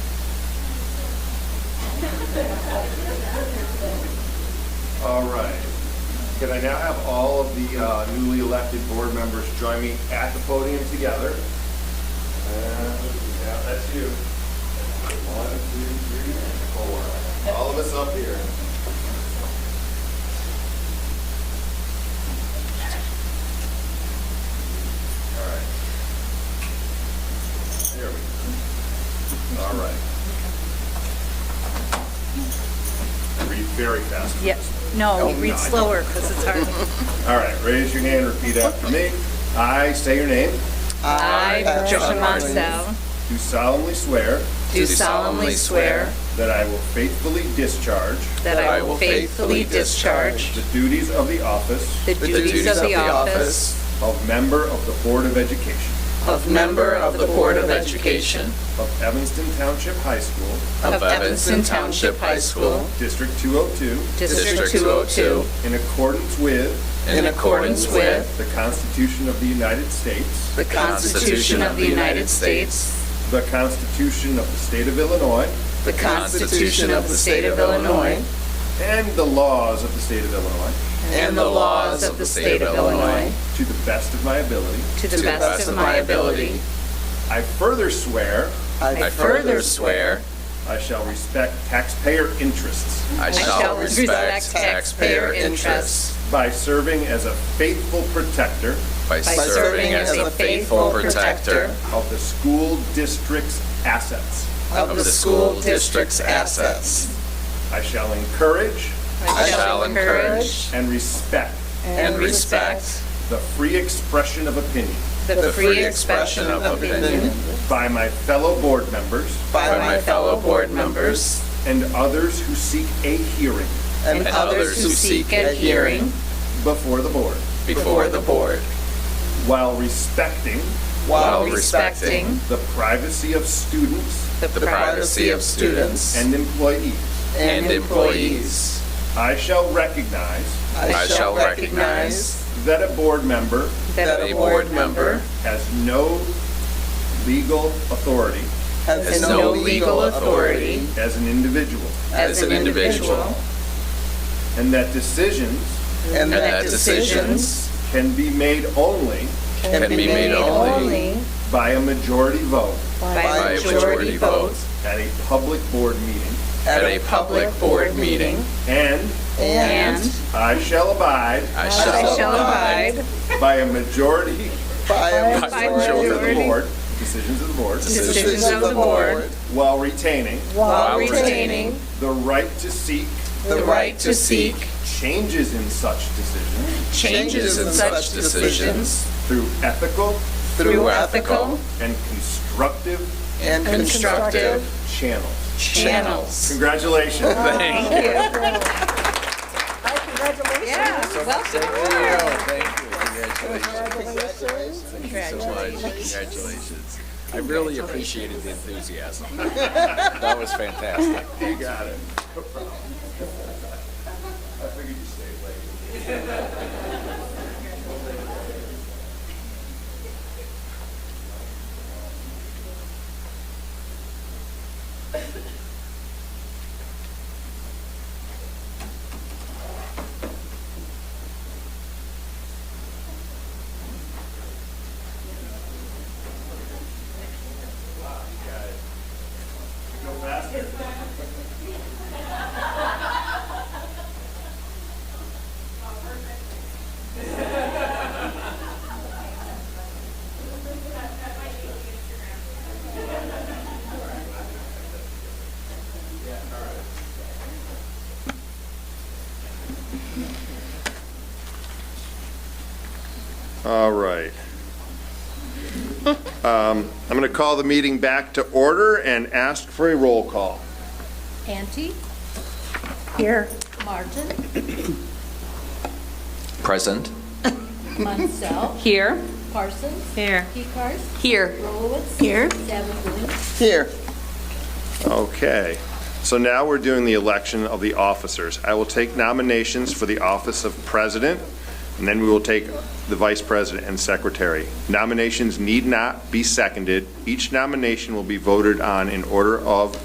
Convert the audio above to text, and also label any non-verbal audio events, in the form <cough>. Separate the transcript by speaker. Speaker 1: All right. Can I now have all of the uh, newly elected board members join me at the podium together? And, Yeah, that's you. One, two, three, and four. All of us up here. All right. There we go. All right. Read very fast.
Speaker 2: Yep, no,
Speaker 1: Oh,
Speaker 2: we
Speaker 1: no,
Speaker 2: read
Speaker 1: I don't.
Speaker 2: slower because it's
Speaker 1: <laughs>
Speaker 2: hard.
Speaker 1: All right, raise your hand, repeat after me. I say your name,
Speaker 2: I, Patricia
Speaker 3: Patricia
Speaker 2: Monsell,
Speaker 1: do solemnly swear
Speaker 2: do solemnly swear
Speaker 1: that I will faithfully discharge
Speaker 2: that I will faithfully discharge
Speaker 1: the duties of the office
Speaker 2: the duties of the office
Speaker 1: of member of the Board of Education
Speaker 3: of member of the Board of Education
Speaker 1: of Evanston Township High School,
Speaker 3: of Evanston Township High School, oh
Speaker 1: District 202,
Speaker 2: District 202,
Speaker 1: in accordance with
Speaker 3: in accordance with
Speaker 1: the Constitution of the United States,
Speaker 3: the Constitution of the United States,
Speaker 1: the Constitution of the State of Illinois,
Speaker 3: the Constitution of the State of Illinois,
Speaker 1: and the laws of the State of Illinois,
Speaker 3: and the laws of the State of Illinois,
Speaker 1: to the best of my ability.
Speaker 2: to the best of my ability.
Speaker 1: I further swear
Speaker 3: I further swear
Speaker 1: I shall respect taxpayer interests
Speaker 3: I shall respect taxpayer interests
Speaker 1: by serving as a faithful protector
Speaker 3: by serving as a faithful protector
Speaker 1: of the school district's assets.
Speaker 3: of the school district's assets.
Speaker 1: I shall encourage
Speaker 3: I shall encourage
Speaker 1: and respect
Speaker 3: and respect
Speaker 1: the free expression of opinion
Speaker 3: the free expression of opinion
Speaker 1: by my fellow board members
Speaker 3: by my fellow board members
Speaker 1: and others who seek a hearing
Speaker 3: and others who seek a hearing
Speaker 1: before the board
Speaker 3: before the board
Speaker 1: while respecting
Speaker 3: while respecting
Speaker 1: the privacy of students
Speaker 3: the privacy of students
Speaker 1: and employees.
Speaker 3: and employees.
Speaker 1: I shall recognize
Speaker 3: I shall recognize
Speaker 1: that a board member
Speaker 3: that a board member
Speaker 1: has no legal authority
Speaker 3: has no legal authority
Speaker 1: as an individual
Speaker 3: as an individual
Speaker 1: and that decisions
Speaker 3: and that decisions
Speaker 1: can be made only
Speaker 3: can be made only
Speaker 1: by a majority vote
Speaker 3: by a majority vote
Speaker 1: at a public board meeting,
Speaker 3: at a public board meeting
Speaker 1: and
Speaker 2: And
Speaker 1: I shall abide
Speaker 3: I
Speaker 2: I
Speaker 3: shall
Speaker 2: shall
Speaker 3: abide
Speaker 2: abide
Speaker 1: by a majority
Speaker 3: by
Speaker 2: by
Speaker 1: of the
Speaker 2: majority
Speaker 1: board, decisions of the board,
Speaker 2: decisions of the board
Speaker 1: while retaining
Speaker 2: while
Speaker 3: while
Speaker 2: retaining
Speaker 3: retaining
Speaker 1: the right to seek
Speaker 3: the right to seek
Speaker 1: changes in such decisions
Speaker 3: changes in such decisions
Speaker 1: through ethical
Speaker 3: through ethical
Speaker 1: and constructive
Speaker 3: and constructive
Speaker 1: channels.
Speaker 3: channels.
Speaker 1: Congratulations.
Speaker 3: Thank you.
Speaker 2: Yeah, welcome aboard.
Speaker 3: Thank you. Congratulations. Thank you so much. Congratulations. I really appreciated the enthusiasm. That was fantastic.
Speaker 1: You got it. <laughs> No problem. I figured you'd stay late. Go faster. All right. <laughs> Um, I'm going to call the meeting back to order and ask for a roll call.
Speaker 4: Ante? Here. Martin?
Speaker 3: Present.
Speaker 4: Monsell?
Speaker 2: Here.
Speaker 4: Parsons?
Speaker 2: Here.
Speaker 4: Pecars?
Speaker 2: Here.
Speaker 4: Rolowitz?
Speaker 2: Here.
Speaker 4: Savage?
Speaker 1: Okay. So now we're doing the election of the officers. I will take nominations for the office of president, and then we will take the vice president and secretary. Nominations need not be seconded. Each nomination will be voted on in order of